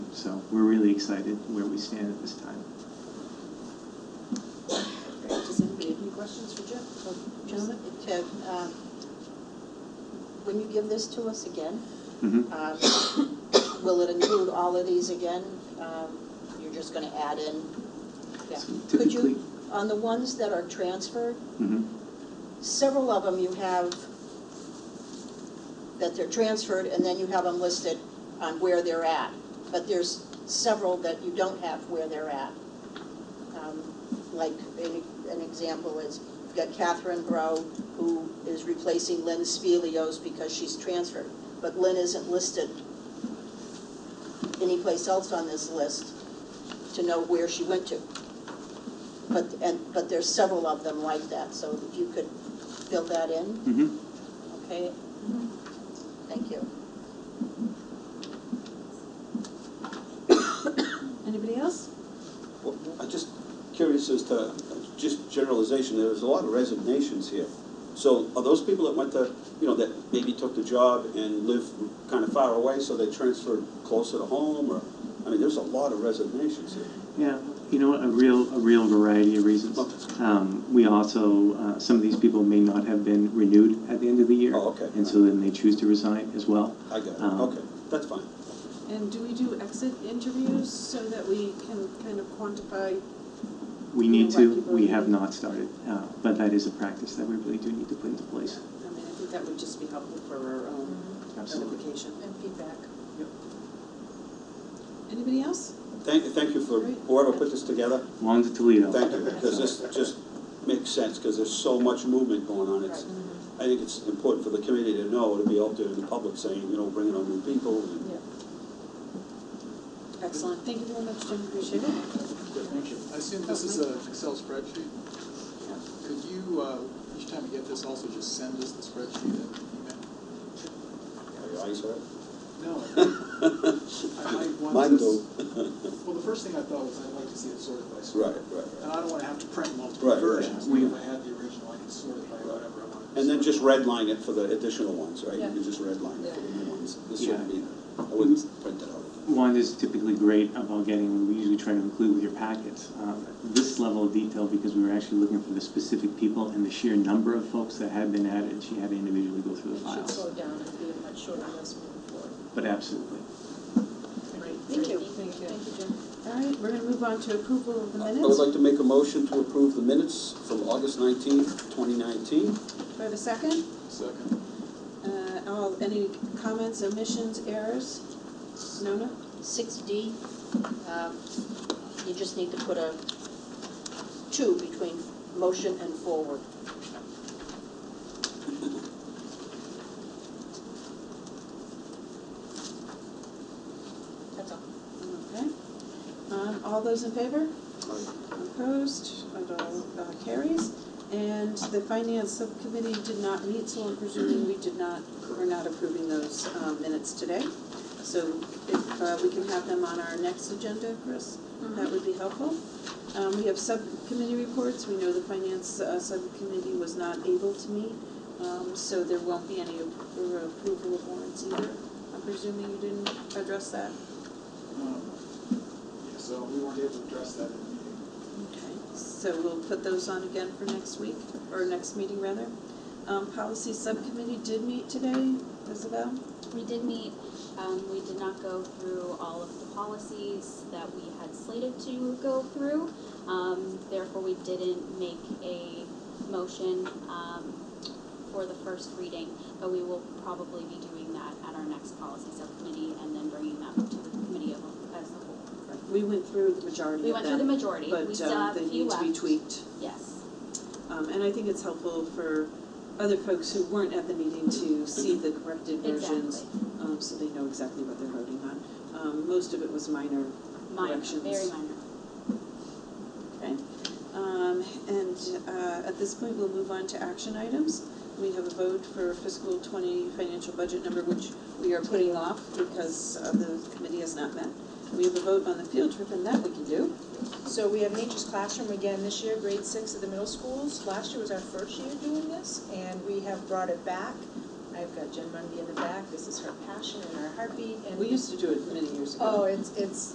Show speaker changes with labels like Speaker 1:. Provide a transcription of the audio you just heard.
Speaker 1: we're really excited where we stand at this time.
Speaker 2: Great. Does anybody have any questions for Jeff?
Speaker 3: So, Gentlemen, it, uh, um, when you give this to us again,
Speaker 4: Mm-hmm.
Speaker 1: Mhm.
Speaker 3: um, will it include all of these again? Um, You're just going to add in? yeah.
Speaker 1: So
Speaker 3: Could
Speaker 1: typically-
Speaker 3: you, on the ones that are transferred,
Speaker 4: Mm-hmm.
Speaker 1: Mhm.
Speaker 3: several of them you have that they're transferred, and then you have them listed on where they're at. But there's several that you don't have where they're at. Um, Like, an, an example is, you've got Catherine Grow, who is replacing Lynn Spelios because she's transferred. But Lynn isn't listed anyplace else on this list to know where she went to. But, and, but there's several of them like that, so if you could fill that in,
Speaker 4: Mm-hmm.
Speaker 1: Mhm.
Speaker 3: okay? Thank you.
Speaker 2: Anybody else?
Speaker 4: Well, I'm just curious as to, just generalization, there's a lot of resignations here. So are those people that went to, you know, that maybe took the job and live kind of far away, so they transferred closer to home, or, I mean, there's a lot of resignations here.
Speaker 1: Yeah, you know, a real, a real variety of reasons.
Speaker 4: Okay.
Speaker 1: Um, we also, uh, some of these people may not have been renewed at the end of the year.
Speaker 4: Oh, okay.
Speaker 1: And so then they choose to resign as well.
Speaker 4: I got it,
Speaker 1: Um,
Speaker 4: okay, that's fine.
Speaker 2: And do we do exit interviews so that we can kind of quantify?
Speaker 1: We
Speaker 2: You know,
Speaker 1: need
Speaker 2: what
Speaker 1: to,
Speaker 2: people
Speaker 1: we
Speaker 2: need.
Speaker 1: have not started, uh, but that is a practice that we really do need to put into place.
Speaker 2: I mean, I think that would just be helpful for our own
Speaker 1: Absolutely.
Speaker 2: notification.
Speaker 3: And feedback.
Speaker 2: Anybody else?
Speaker 4: Thank, thank you for whoever put this together,
Speaker 1: Long to Toledo.
Speaker 4: thank you, because this just makes sense, because there's so much movement going on. It's,
Speaker 3: Mm-hmm.
Speaker 4: I think it's important for the committee to know, to be out there in the public saying, you know, bringing on new people, and
Speaker 2: Yeah. Excellent, thank you very much, Jim, appreciate it.
Speaker 5: Thank you. I assume this is an Excel spreadsheet. Could you, uh, each time you get this, also just send us the spreadsheet and email?
Speaker 4: are your eyes hurt?
Speaker 5: No, I might want
Speaker 4: Mine do.
Speaker 5: this. Well, the first thing I thought was I'd like to see it sorted by sort.
Speaker 4: Right, right,
Speaker 5: And
Speaker 4: right.
Speaker 5: I don't want to have to print multiple
Speaker 4: Right, right.
Speaker 5: versions.
Speaker 1: We-
Speaker 5: If I had the original, I could sort it by whatever I wanted. to
Speaker 4: And then
Speaker 5: sort.
Speaker 4: just redline it for the additional ones, right? You
Speaker 2: Yeah. Mm-hmm.
Speaker 4: can just redline it for the new ones. This shouldn't
Speaker 1: Yeah.
Speaker 4: be, I wouldn't print that out.
Speaker 1: One is typically great about getting, we usually try to include with your packets, um, this level of detail because we were actually looking for the specific people and the sheer number of folks that had been added, she had to individually go through the
Speaker 6: Should
Speaker 1: files.
Speaker 6: slow down and be a much shorter list moving forward.
Speaker 1: But absolutely.
Speaker 2: Great, thank you.
Speaker 6: Thank you. Thank you, Jim.
Speaker 2: All right, we're gonna move on to approval of the
Speaker 4: I
Speaker 2: minutes.
Speaker 4: would like to make a motion to approve the minutes from August nineteenth, twenty nineteen.
Speaker 2: Do I have a second?
Speaker 5: Second.
Speaker 2: Uh, all, any comments, omissions, errors? Nona?
Speaker 3: Six D, um, you just need to put a two between motion and forward. That's all.
Speaker 2: Okay. Um, all those in favor? Opposed? It all uh, carries. And the finance subcommittee did not meet, so I'm presuming we did not, we're not approving those um, minutes today. So if uh, we can have them on our next agenda, Chris, that would be helpful. Um, We have subcommittee reports. We know the finance uh, subcommittee was not able to meet, um, so there won't be any appro- approval of warrants either. I'm presuming you didn't address that?
Speaker 5: Um, Yeah, so we weren't able to address that in the meeting.
Speaker 2: Okay, so we'll put those on again for next week, or next meeting rather. Um, policy subcommittee did meet today, Isabel?
Speaker 7: We did meet, um, we did not go through all of the policies that we had slated to go through. Um, therefore, we didn't make a motion, um, for the first reading, but we will probably be doing that at our next policy subcommittee and then bringing that to the committee of, as a whole.
Speaker 2: We went through the majority
Speaker 7: We
Speaker 2: of
Speaker 7: went through the
Speaker 2: them,
Speaker 7: majority, we
Speaker 2: but,
Speaker 7: still
Speaker 2: um,
Speaker 7: have a
Speaker 2: they
Speaker 7: few
Speaker 2: need to be
Speaker 7: left.
Speaker 2: tweaked.
Speaker 7: Yes.
Speaker 2: Um, and I think it's helpful for other folks who weren't at the meeting to see the corrected versions,
Speaker 7: Exactly.
Speaker 2: um, so they know exactly what they're voting on. Um, most of it was minor
Speaker 7: Minor,
Speaker 2: corrections.
Speaker 7: very minor.
Speaker 2: Okay, um, and, uh, at this point, we'll move on to action items. We have a vote for fiscal twenty financial budget number, which we are putting off because uh, the committee has not met. We have a vote on the field trip, and that we can do.
Speaker 6: So we have Nature's Classroom again this year, grade six at the middle schools. Last year was our first year doing this, and we have brought it back. I've got Jen Mundy in the back, this is her passion and our heartbeat, and.
Speaker 2: We used to do it many years ago.
Speaker 6: Oh, it's, it's,